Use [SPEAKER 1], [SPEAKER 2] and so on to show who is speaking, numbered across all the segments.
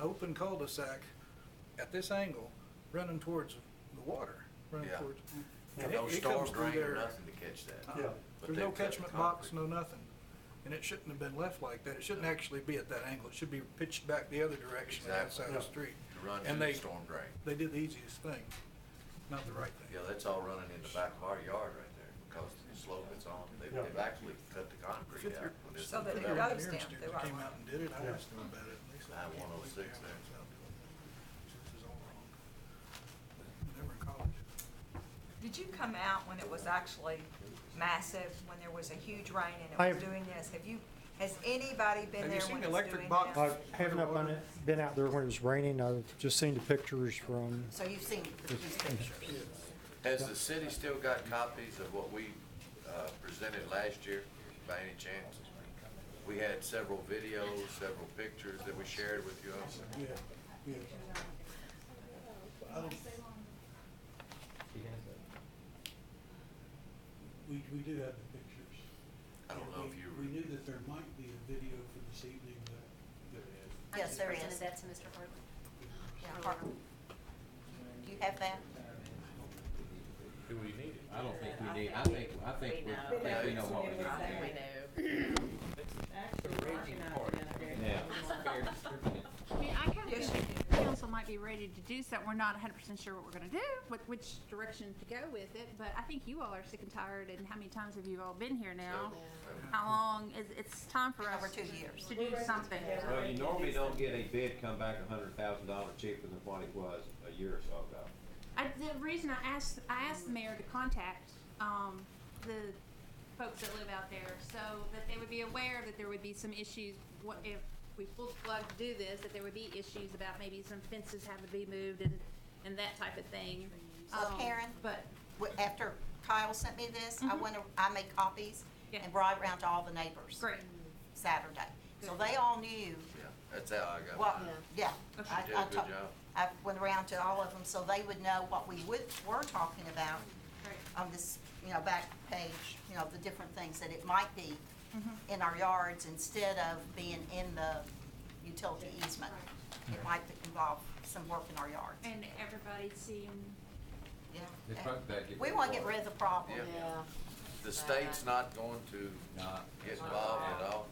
[SPEAKER 1] open cul-de-sac at this angle, running towards the water, running
[SPEAKER 2] Yeah.
[SPEAKER 1] towards.
[SPEAKER 2] Got
[SPEAKER 1] and
[SPEAKER 2] No
[SPEAKER 1] it- it
[SPEAKER 2] storm
[SPEAKER 1] comes through
[SPEAKER 2] drain or
[SPEAKER 1] there.
[SPEAKER 2] nothing to catch that.
[SPEAKER 1] Uh-uh.
[SPEAKER 3] Yeah.
[SPEAKER 2] But
[SPEAKER 1] There's
[SPEAKER 2] they've
[SPEAKER 1] no
[SPEAKER 2] cut the
[SPEAKER 1] catchment box, no
[SPEAKER 2] concrete.
[SPEAKER 1] nothing. And it shouldn't have been left like that. It shouldn't actually be at that angle. It should be pitched back the other direction and
[SPEAKER 2] Exactly.
[SPEAKER 1] outside the
[SPEAKER 3] Yeah.
[SPEAKER 1] street.
[SPEAKER 2] To run
[SPEAKER 1] And
[SPEAKER 2] through the
[SPEAKER 1] they-
[SPEAKER 2] storm drain.
[SPEAKER 1] They did the easiest thing, not the right
[SPEAKER 2] Yeah,
[SPEAKER 1] thing.
[SPEAKER 2] that's all running in the back of our yard right there because the slope it's on, they've,
[SPEAKER 3] Yeah.
[SPEAKER 2] they've actually cut the concrete out. when this
[SPEAKER 4] So
[SPEAKER 2] was
[SPEAKER 4] that it
[SPEAKER 2] developed.
[SPEAKER 4] goes-
[SPEAKER 1] Engineers
[SPEAKER 4] down
[SPEAKER 1] did.
[SPEAKER 4] the
[SPEAKER 1] They
[SPEAKER 4] right
[SPEAKER 1] Came
[SPEAKER 4] way.
[SPEAKER 1] out and did it. I
[SPEAKER 3] Yeah.
[SPEAKER 1] asked them about it. and they said,
[SPEAKER 2] I
[SPEAKER 1] "We can't
[SPEAKER 2] 106
[SPEAKER 1] do it.
[SPEAKER 2] there.
[SPEAKER 1] This is all wrong." They were in college.
[SPEAKER 4] Did you come out when it was actually massive, when there was a huge rain
[SPEAKER 5] I
[SPEAKER 4] and it was
[SPEAKER 5] have-
[SPEAKER 4] doing this? Have you, has anybody been
[SPEAKER 1] Have
[SPEAKER 4] there
[SPEAKER 1] you seen
[SPEAKER 4] when
[SPEAKER 1] the
[SPEAKER 4] it's
[SPEAKER 1] electric
[SPEAKER 4] doing
[SPEAKER 1] box?
[SPEAKER 5] I
[SPEAKER 4] this?
[SPEAKER 5] haven't up on it- been out there when it was raining. I've just seen the pictures from,
[SPEAKER 4] So you've seen these pictures?
[SPEAKER 2] Has the city still got copies of what we, uh, presented last year by any chance? We had several videos, several pictures that we shared with you.
[SPEAKER 1] Yeah, yeah. Um,
[SPEAKER 3] We, we do have the pictures.
[SPEAKER 2] I don't know if you.
[SPEAKER 3] We knew that there might be a video for this evening, but there is.
[SPEAKER 4] Yes, there
[SPEAKER 6] I
[SPEAKER 4] is.
[SPEAKER 6] just presented that to Mr. Hartman.
[SPEAKER 4] Yeah, Harper. Do you have that?
[SPEAKER 7] Do we need it? I don't think we need, I think, I think, we- I think we know what we need
[SPEAKER 6] I
[SPEAKER 7] to
[SPEAKER 6] think
[SPEAKER 7] do.
[SPEAKER 6] we know.
[SPEAKER 8] I mean, I kind of
[SPEAKER 4] Yes,
[SPEAKER 8] think the council might be ready to do something. We're not hundred percent sure what we're gonna do, what, which direction to go with it, but I think you all are sick and tired, and how many times have you all been here now? How long, is, it's time for us.
[SPEAKER 4] Over two years.
[SPEAKER 8] To do something.
[SPEAKER 7] Well, you normally don't get a bid come back a hundred thousand dollars cheaper than what it was a year or so ago.
[SPEAKER 8] I, the reason I asked, I asked the mayor to contact, um, the folks that live out there, so that they would be aware that there would be some issues, what, if we full plug do this, that there would be issues about maybe some fences having to be moved and, and that type of thing.
[SPEAKER 4] So
[SPEAKER 8] Um,
[SPEAKER 4] Karen-
[SPEAKER 8] But,
[SPEAKER 4] Wh- After Kyle sent me this, I went, ar- I made copies
[SPEAKER 8] Yeah.
[SPEAKER 4] and brought it around to all the neighbors.
[SPEAKER 8] great,
[SPEAKER 4] Saturday. So they all knew
[SPEAKER 2] Yeah, that's how I got.
[SPEAKER 4] what,
[SPEAKER 2] mine.
[SPEAKER 4] yeah.
[SPEAKER 8] Okay.
[SPEAKER 4] I-
[SPEAKER 2] You did
[SPEAKER 4] I
[SPEAKER 2] a good
[SPEAKER 4] talked-
[SPEAKER 2] job.
[SPEAKER 4] I went around to all of them, so they would know what we would, were talking about
[SPEAKER 8] great.
[SPEAKER 4] on this, you know, back page, you know, the different things that it might be in our yards instead of being in the utility easement. It might involve some work in our yards,
[SPEAKER 8] And everybody's seeing,
[SPEAKER 4] yeah.
[SPEAKER 7] The truck back.
[SPEAKER 4] eh, We want to get rid of the problem.
[SPEAKER 2] Yeah.
[SPEAKER 6] Yeah.
[SPEAKER 2] The state's not going to
[SPEAKER 7] Not.
[SPEAKER 2] get involved at all.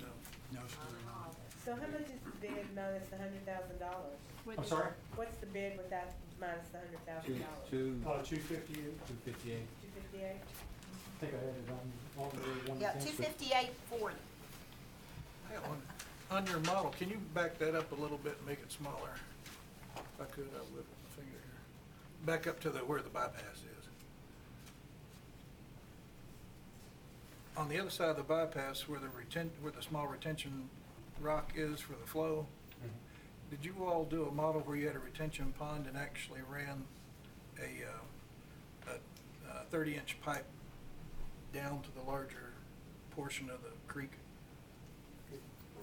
[SPEAKER 1] No, no, it's really not.
[SPEAKER 9] So how much is the bid minus the hundred thousand dollars?
[SPEAKER 8] with
[SPEAKER 3] I'm
[SPEAKER 8] the-
[SPEAKER 3] sorry?
[SPEAKER 9] What's the bid without, minus the hundred thousand dollars?
[SPEAKER 7] two,
[SPEAKER 3] Uh, two fifty-eight,
[SPEAKER 7] two fifty-eight.
[SPEAKER 9] Two fifty-eight?
[SPEAKER 3] I think I had it on, on the one.
[SPEAKER 4] Yeah,
[SPEAKER 3] thing,
[SPEAKER 4] two
[SPEAKER 3] but-
[SPEAKER 4] fifty-eight forty.
[SPEAKER 1] I got one. On your model, can you back that up a little bit and make it smaller? If I could, I would, with my finger here. Back up to the, where the bypass is. On the other side of the bypass, where the retent, where the small retention rock is for the flow, did you all do a model where you had a retention pond and actually ran a, uh, a uh, thirty-inch pipe down to the larger portion of the creek?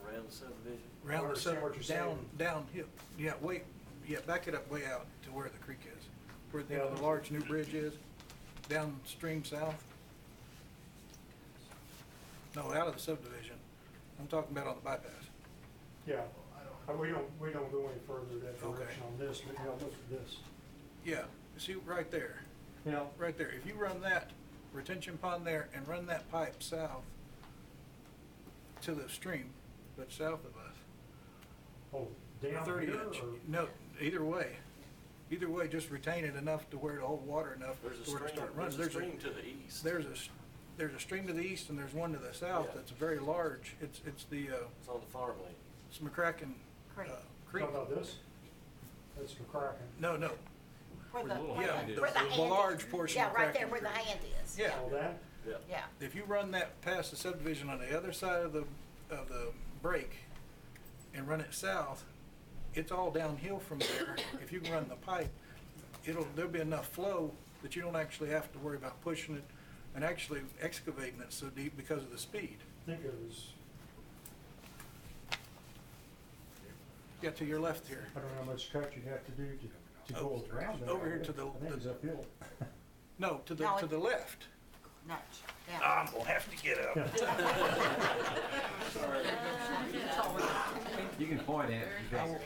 [SPEAKER 10] Around the subdivision?
[SPEAKER 1] Round the
[SPEAKER 3] understand what
[SPEAKER 1] summer,
[SPEAKER 3] you're
[SPEAKER 1] down,
[SPEAKER 3] saying.
[SPEAKER 1] down hill, yeah, wait, yeah, back it up way out to where the creek is, where the, the large new bridge is, downstream south. No, out of the subdivision, I'm talking about on the bypass.
[SPEAKER 3] Yeah, Uh, we don't, we don't go any further that
[SPEAKER 1] Okay.
[SPEAKER 3] direction on this, but yeah, look at this.
[SPEAKER 1] Yeah, see, right there,
[SPEAKER 3] Yeah,
[SPEAKER 1] right there, if you run that retention pond there and run that pipe south to the stream, but south of us,
[SPEAKER 3] oh, down
[SPEAKER 1] thirty
[SPEAKER 3] here
[SPEAKER 1] inch,
[SPEAKER 3] or-
[SPEAKER 1] no, either way, either way, just retain it enough to where it'll hold water enough
[SPEAKER 10] There's a
[SPEAKER 1] to where
[SPEAKER 10] stream,
[SPEAKER 1] it start running.
[SPEAKER 10] there's a stream to the east.
[SPEAKER 1] There's a, s- there's a stream to the east and there's one to the south
[SPEAKER 10] Yeah.
[SPEAKER 1] that's very large. It's, it's the, uh,
[SPEAKER 10] It's on the farmland.
[SPEAKER 1] it's McCracken, uh,
[SPEAKER 4] Creek.
[SPEAKER 1] Creek.
[SPEAKER 3] Talk about this? That's McCracken.
[SPEAKER 1] No, no,
[SPEAKER 4] Where the,
[SPEAKER 7] little
[SPEAKER 4] where
[SPEAKER 1] hand
[SPEAKER 4] the,
[SPEAKER 1] is.
[SPEAKER 4] where the
[SPEAKER 1] The
[SPEAKER 4] hand is.
[SPEAKER 1] large portion of
[SPEAKER 4] Yeah, right there
[SPEAKER 1] Cracking
[SPEAKER 4] where the
[SPEAKER 1] Creek.
[SPEAKER 4] hand is.
[SPEAKER 1] yeah.
[SPEAKER 3] All that?
[SPEAKER 10] Yeah.
[SPEAKER 4] Yeah.
[SPEAKER 1] If you run that past the subdivision on the other side of the, of the break and run it south, it's all downhill from there. If you can run the pipe, it'll, there'll be enough flow that you don't actually have to worry about pushing it and actually excavating it so deep because of the speed.
[SPEAKER 3] I think it was,
[SPEAKER 1] Yeah, to your left here.
[SPEAKER 3] I don't know how much cut you have to do to, to go
[SPEAKER 1] Over-
[SPEAKER 3] around that.
[SPEAKER 1] Oh, over here
[SPEAKER 3] I
[SPEAKER 1] to the-
[SPEAKER 3] think it's uphill.
[SPEAKER 1] No, to the,
[SPEAKER 4] No,
[SPEAKER 1] to
[SPEAKER 4] it-
[SPEAKER 1] the left.
[SPEAKER 4] Notch, yeah.
[SPEAKER 1] I'm gonna have to get up.
[SPEAKER 7] You can point at it.